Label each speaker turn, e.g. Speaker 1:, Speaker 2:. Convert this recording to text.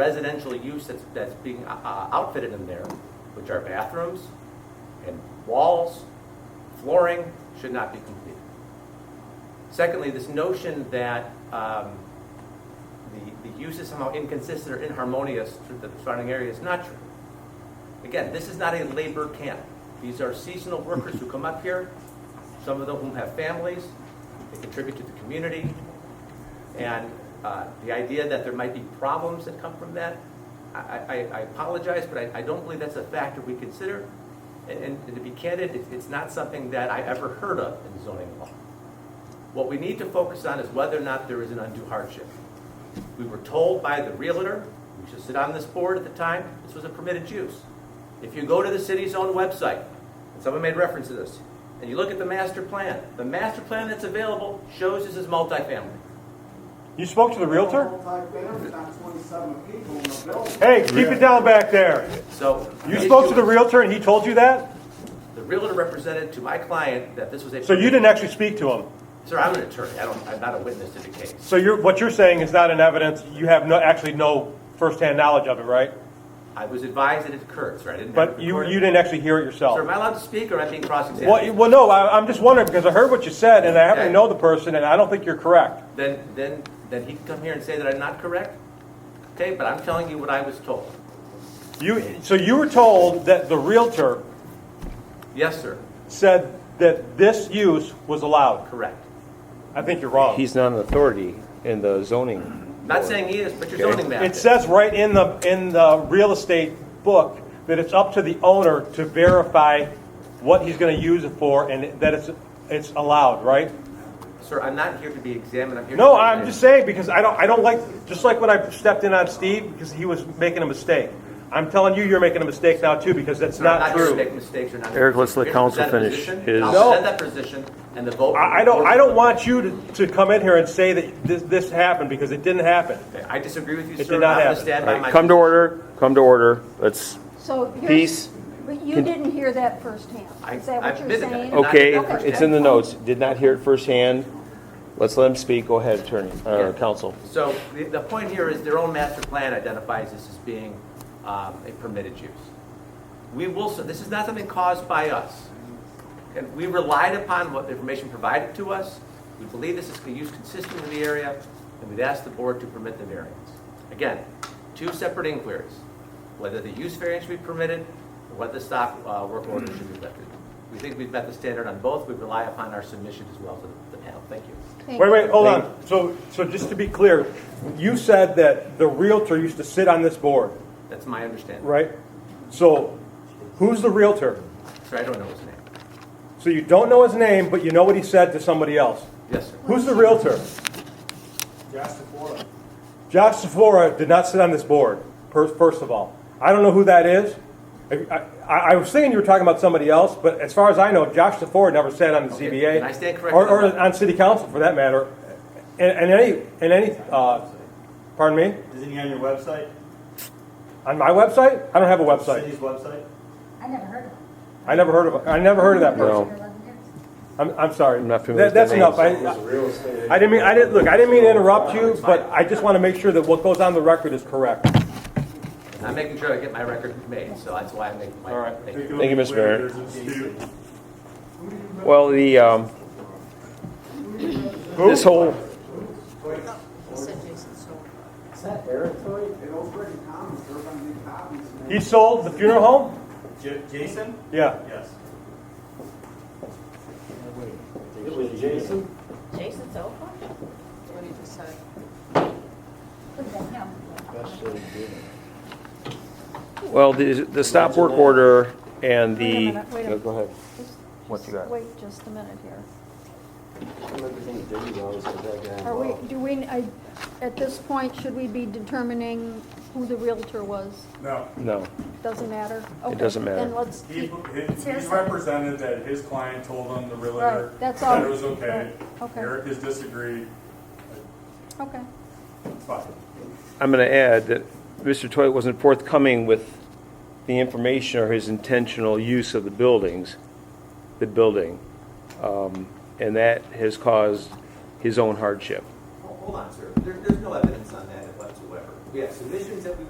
Speaker 1: residential use that's, that's being uh, uh, outfitted in there, which are bathrooms and walls, flooring, should not be completed. Secondly, this notion that um, the, the use is somehow inconsistent or inharmonious to the surrounding area is not true. Again, this is not a labor camp. These are seasonal workers who come up here, some of them whom have families, they contribute to the community. And uh, the idea that there might be problems that come from that, I, I- I apologize, but I, I don't believe that's a factor we consider. And- And to be candid, it's- it's not something that I ever heard of in zoning law. What we need to focus on is whether or not there is an undue hardship. We were told by the realtor, who should sit on this board at the time, this was a permitted use. If you go to the city's own website, and someone made reference to this, and you look at the master plan, the master plan that's available shows this is multifamily.
Speaker 2: You spoke to the realtor?
Speaker 3: Multi-family, not 27 people in a building.
Speaker 2: Hey, keep it down back there.
Speaker 1: So.
Speaker 2: You spoke to the realtor and he told you that?
Speaker 1: The realtor represented to my client that this was a.
Speaker 2: So you didn't actually speak to him?
Speaker 1: Sir, I'm an attorney. I don't, I'm not a witness to the case.
Speaker 2: So you're, what you're saying is not in evidence, you have no, actually no firsthand knowledge of it, right?
Speaker 1: I was advised that it occurred, sir. I didn't. have it
Speaker 2: But you,
Speaker 1: recorded.
Speaker 2: you didn't actually hear it
Speaker 1: Sir, am
Speaker 2: yourself?
Speaker 1: I allowed to speak or am I being cross-examined?
Speaker 2: Well, you- well, no, I, I'm just wondering, because I heard what you said, and I happen to
Speaker 1: Okay.
Speaker 2: know the person, and I don't think you're correct.
Speaker 1: then, then, then he can come here and say that I'm not correct? Okay, but I'm telling you what I was told.
Speaker 2: You, so you were told that the realtor
Speaker 1: Yes, sir,
Speaker 2: said that this use was allowed.
Speaker 1: correct.
Speaker 2: I think you're wrong.
Speaker 4: He's not an authority in the zoning.
Speaker 1: Not saying he is, but your
Speaker 4: Okay.
Speaker 1: zoning map
Speaker 2: It
Speaker 1: is.
Speaker 2: says right in the, in the real estate book that it's up to the owner to verify what he's gonna use it for and that it's, it's allowed, right?
Speaker 1: Sir, I'm not here to be examined, I'm here to.
Speaker 2: No, I'm just saying, because I don't, I don't like, just like when I stepped in on Steve, because he was making a mistake. I'm telling you, you're making a mistake now too, because that's
Speaker 1: Sir, I'm
Speaker 2: not
Speaker 1: here to
Speaker 2: true.
Speaker 1: make mistakes or not.
Speaker 4: Eric, let's let
Speaker 1: Here to
Speaker 4: counsel
Speaker 1: present a
Speaker 4: finish
Speaker 1: position,
Speaker 4: his-
Speaker 1: I'll
Speaker 2: No.
Speaker 1: present that position and the vote.
Speaker 2: I, I don't, I don't want you to, to come in here and say that this, this happened, because it didn't happen.
Speaker 1: Okay, I disagree with you,
Speaker 2: It
Speaker 1: sir.
Speaker 2: did not
Speaker 1: I'm gonna
Speaker 2: happen.
Speaker 1: stand
Speaker 4: All
Speaker 1: by
Speaker 4: right,
Speaker 1: my-
Speaker 4: Come to order, come to order. Let's,
Speaker 5: So you're.
Speaker 4: Peace.
Speaker 5: But you didn't hear that firsthand.
Speaker 1: I-
Speaker 5: Is that
Speaker 1: I've
Speaker 5: what
Speaker 1: been
Speaker 5: you're
Speaker 1: there.
Speaker 5: saying?
Speaker 4: okay,
Speaker 1: Okay.
Speaker 4: it's in the notes. Did not hear it firsthand. Let's let him speak. Go ahead, attorney,
Speaker 1: Yeah.
Speaker 4: uh, counsel.
Speaker 1: So the, the point here is their own master plan identifies this as being um, a permitted use. We will, so this is not something caused by us. And we relied upon what the information provided to us. We believe this is a use consistent with the area, and we've asked the board to permit the variance. Again, two separate inquiries, whether the use variance should be permitted, or whether the stop uh, work order should be lifted. We think we've met the standard on both. We rely upon our submission as well to the- the panel. Thank you.
Speaker 5: Thank
Speaker 2: Wait,
Speaker 5: you.
Speaker 2: wait, hold on. So, so just to be clear, you said that the realtor used to sit on this board,
Speaker 1: That's my understanding.
Speaker 2: right? So, who's the realtor?
Speaker 1: Sir, I don't know his name.
Speaker 2: So you don't know his name, but you know what he said to somebody else.
Speaker 1: Yes, sir.
Speaker 2: Who's the realtor?
Speaker 3: Josh DeFora.
Speaker 2: Josh Sephora did not sit on this board, per- first of all. I don't know who that is. I, I, I was thinking you were talking about somebody else, but as far as I know, Josh Sephora never sat on the
Speaker 1: Okay,
Speaker 2: ZBA.
Speaker 1: and I stand corrected
Speaker 2: Or,
Speaker 1: on that.
Speaker 2: or on city council, for that matter. And, and any, and any, uh, pardon me?
Speaker 6: Isn't he on your website?
Speaker 2: On my website? I don't have a website.
Speaker 6: City's website?
Speaker 7: I never heard of it.
Speaker 2: I never heard of, I never heard of that person.
Speaker 4: No.
Speaker 2: I'm, I'm sorry.
Speaker 4: I'm not familiar
Speaker 2: That- That's
Speaker 4: with
Speaker 2: enough. I,
Speaker 4: their
Speaker 2: I- I didn't mean, I didn't, look, I didn't mean to interrupt you, but I just want to make sure that what goes on the record is correct.
Speaker 1: I'm making sure I get my record made, so that's why I'm making my.
Speaker 2: All right.
Speaker 1: thank you.
Speaker 4: Thank you, Mr. Mayor. Well, the, um, this whole,
Speaker 3: Is that Eric? It was pretty common, sir, if I make copies, man.
Speaker 2: He sold the funeral home?
Speaker 6: J- Jason?
Speaker 2: Yeah.
Speaker 6: Yes.
Speaker 3: It was Jason.
Speaker 7: Jason's open? What did you say?
Speaker 4: well, the, the stop work order and
Speaker 5: Wait a
Speaker 4: the,
Speaker 5: minute, wait a
Speaker 4: no, go ahead.
Speaker 5: Just-
Speaker 4: What
Speaker 5: just
Speaker 4: you got?
Speaker 5: Wait just a minute here.
Speaker 3: Everything dirty, though, is that guy
Speaker 5: Are we,
Speaker 3: involved.
Speaker 5: do we, I, at this point, should we be determining who the realtor was?
Speaker 8: No,
Speaker 4: No.
Speaker 5: Doesn't matter? Okay,
Speaker 4: doesn't matter.
Speaker 5: Then let's,
Speaker 8: he, he-
Speaker 5: keep-
Speaker 8: he represented that his client told him, the realtor,
Speaker 5: Right, that's all.
Speaker 8: that it was okay.
Speaker 5: Right, okay.
Speaker 8: Eric has disagreed,
Speaker 5: okay.
Speaker 8: it's fine.
Speaker 4: I'm going to add that Mr. Toy wasn't forthcoming with the information or his intentional use of the buildings, the building. Um, And that has caused his own hardship.
Speaker 1: Hold on, sir. There, there's no evidence on that whatsoever. We have submissions that we